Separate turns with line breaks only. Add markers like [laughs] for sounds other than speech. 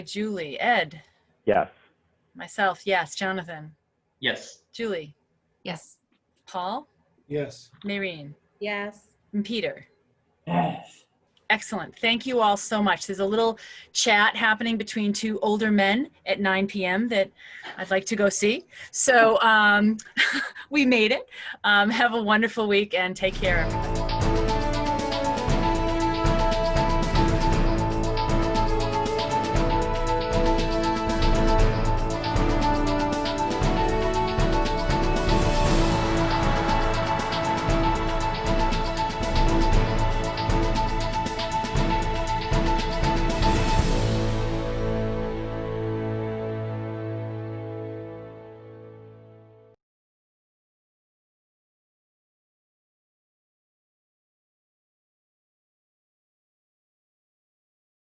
Julie, Ed,
Yes.
myself, yes, Jonathan,
Yes.
Julie,
Yes.
Paul,
Yes.
Maureen,
Yes.
and Peter.
Yes.
Excellent. Thank you all so much. There's a little chat happening between two older men at 9 p.m. that I'd like to go see. [laughs] So um, we made it. Um, have a wonderful week and take care, everyone.